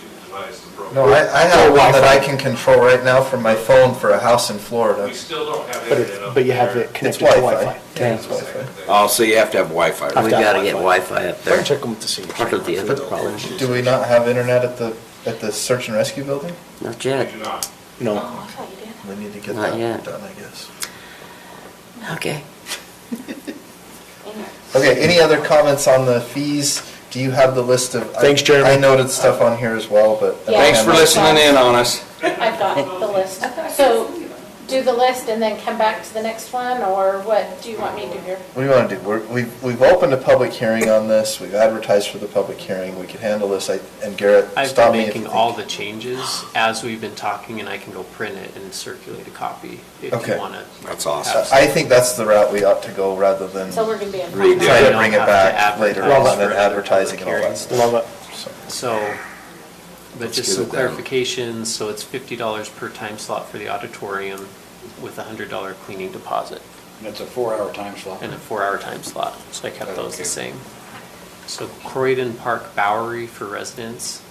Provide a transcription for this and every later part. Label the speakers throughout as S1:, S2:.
S1: device
S2: No,
S1: appropriate.
S2: I, I have one that I can control right now from my phone for a house in Florida.
S1: We still don't have
S3: But
S1: internet
S3: it,
S1: up
S3: but you have
S1: there.
S3: it
S2: It's
S3: connected to
S2: Wi-Fi.
S3: Wi-Fi.
S2: Yeah, it's Wi-Fi.
S4: Oh, so you have to have Wi-Fi.
S3: I've
S5: We
S3: got
S5: gotta get
S3: Wi-Fi.
S5: Wi-Fi up there.
S3: Check them to see.
S5: Part of the other problem.
S2: Do we not have internet at the, at the search and rescue building?
S5: Not
S1: We
S5: yet.
S1: do not.
S3: No.
S2: We need to get
S5: Not
S2: that
S5: yet.
S2: done, I guess.
S5: Okay.
S2: Okay, any other comments on the fees? Do you have the list of? I-
S3: Thanks, Jeremy.
S2: I noted stuff on here as well, but.
S6: Yeah.
S4: Thanks for listening in on us.
S6: I've got the list. So do the list and then come back to the next one, or what do you want me to do here?
S2: What do you want to do? We're, we've, we've opened a public hearing on this, we've advertised for the public hearing, we could handle this, I- and Garrett,
S7: I've been
S2: stop me if you
S7: making all the
S2: think-
S7: changes as we've been talking, and I can go print it and circulate a copy if
S2: Okay.
S7: you want to.
S4: That's awesome.
S2: Uh, I I think that's the route we ought to go rather than
S6: So we're gonna be in.
S4: Read
S2: try
S4: Yeah.
S2: to bring it back later on and advertising and all that stuff.
S3: Love it.
S2: So-
S7: So, but
S4: Let's
S7: just
S4: get
S7: some
S4: it down.
S7: clarifications, so it's fifty dollars per time slot for the auditorium with a hundred dollar cleaning deposit
S8: It's a four-hour time slot.
S7: and a four-hour time slot, so I kept those
S8: Okay.
S7: the same. So Croydon Park Bowery for residents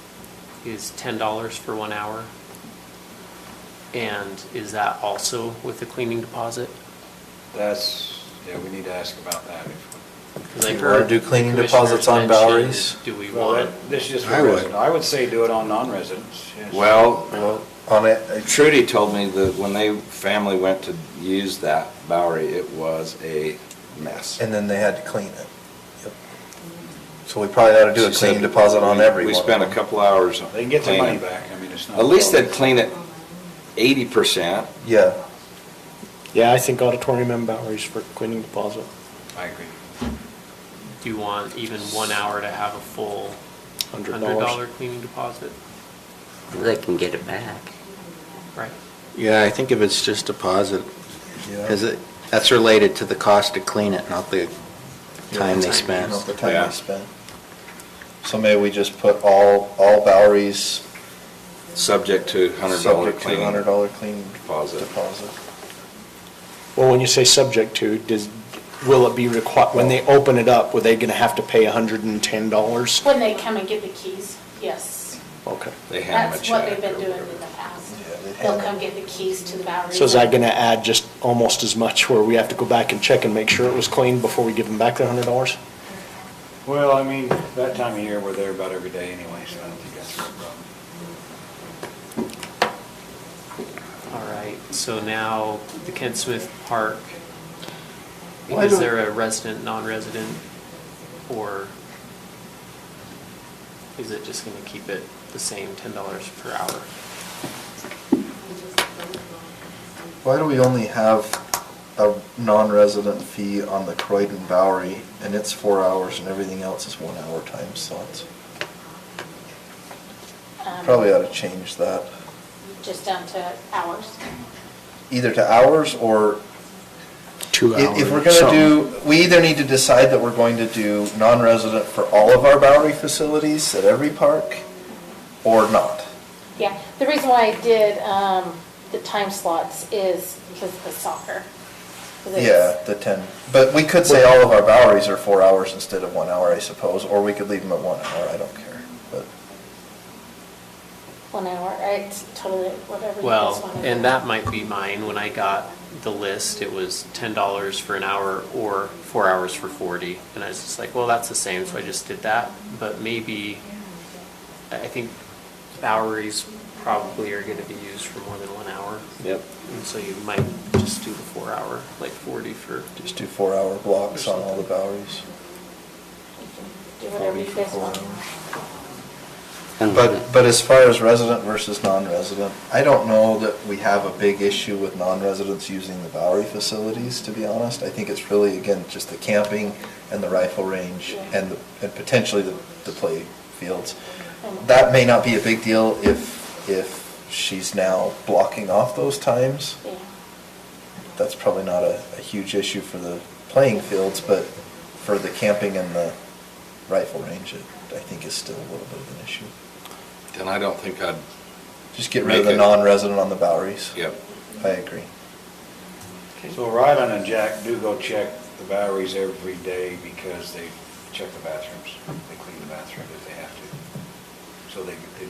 S7: is ten dollars for one hour. And is that also with the cleaning deposit?
S8: That's, yeah, we need to ask about that.
S7: Because I
S2: Do you
S7: heard
S2: wanna do cleaning
S7: commissioners
S2: deposits on
S7: mention,
S2: Boweries?
S7: Do we
S8: Well,
S7: want,
S8: that- This is just
S4: I
S8: for
S4: would.
S8: residents. I would say do it on non-residents. yes.
S4: Well,
S2: Well, on it, it's-
S4: Trudy told me that when they, family went to use that Bowery, it was a mess.
S2: and then they had to clean it. Yep. So we probably ought to do a
S4: She said
S2: clean deposit on
S4: we-
S2: every
S4: We
S2: one of
S4: spent a
S2: them.
S4: couple hours.
S8: They can get their money
S4: cleaning.
S8: back, I mean, it's not.
S4: At least they'd clean it eighty percent.
S2: Yeah,
S3: Yeah, I think auditorium and Bowery's for cleaning deposit.
S8: I agree.
S7: do you want even one hour to have a full
S3: Hundred
S7: hundred
S3: dollars.
S7: dollar cleaning deposit?
S5: They can get it back.
S7: Right.
S9: Yeah, I think if it's just deposit,
S2: yeah.
S9: is it, that's related to the cost to clean it, not the
S2: Yeah,
S9: time
S2: the
S9: they spent.
S2: Not the time
S4: Yeah.
S2: they spent. So maybe we just put all, all Bowery's
S4: Subject to hundred dollar
S2: subject to
S4: cleaning.
S2: hundred dollar clean
S4: deposit.
S2: deposit.
S3: Well, when you say subject to, does, will it be required, when they open it up, were they gonna have to pay hundred and ten dollars?
S6: When they come and get the keys, yes.
S3: Okay.
S4: They hand them a
S6: That's what
S4: check
S6: they've been
S4: or
S6: doing
S4: whatever.
S6: in the past.
S2: Yeah, they hand
S6: They'll
S2: them.
S6: come get the keys to the Bowery.
S3: So is that gonna add just almost as much where we have to go back and check and make sure it was clean before we give them back their hundred dollars?
S8: Well, I mean, that time of year, we're there about every day anyway, so I don't think that's a real problem.
S7: All right, so now the Kent Smith Park,
S2: Why
S7: is
S2: don't-
S7: there a resident, non-resident, or is it just gonna keep it the same, ten dollars per hour?
S2: Why do we only have a non-resident fee on the Croydon Bowery and it's four hours and everything else is one hour time slots?
S6: Um,
S2: Probably ought to change that,
S6: Just down to hours.
S2: either to hours or
S3: Two
S2: If
S3: hours.
S2: if we're gonna do, we either need to decide that we're going to do non-resident for all of our Bowery facilities at every park, or not.
S6: Yeah, the reason why I did, um, the time slots is because of the soccer. 'Cause it's-
S2: Yeah, the ten, but we could say all of our Boweries are four hours instead of one hour, I suppose, or we could leave them at one hour, I don't care, but.
S6: One hour, it's totally whatever you guys
S7: Well,
S6: want.
S7: and that might be mine, when I got the list, it was ten dollars for an hour or four hours for forty, and I was just like, well, that's the same, so I just did that, but maybe, I I think Boweries probably are gonna be used for more than one hour.
S4: Yep.
S7: And so you might just do the four hour, like forty for,
S2: Just do four-hour blocks on all the Boweries.
S6: Do whatever you guys want.
S2: But, but as far as resident versus non-resident, I don't know that we have a big issue with non-residents using the Bowery facilities, to be honest. I think it's really, again, just the camping and the rifle range and, the- and potentially the, the play fields. That may not be a big deal if, if she's now blocking off those times.
S6: Yeah.
S2: That's probably not a, a huge issue for the playing fields, but for the camping and the rifle range, it, I think is still a little bit of an issue.
S4: Then I don't think I'd,
S2: Just get rid of
S4: Make
S2: the
S4: it-
S2: non-resident on the Boweries.
S4: yep.
S2: I agree.
S8: So Ryland and Jack do go check the Boweries every day because they check the bathrooms. They clean the bathroom if they have to. So they, they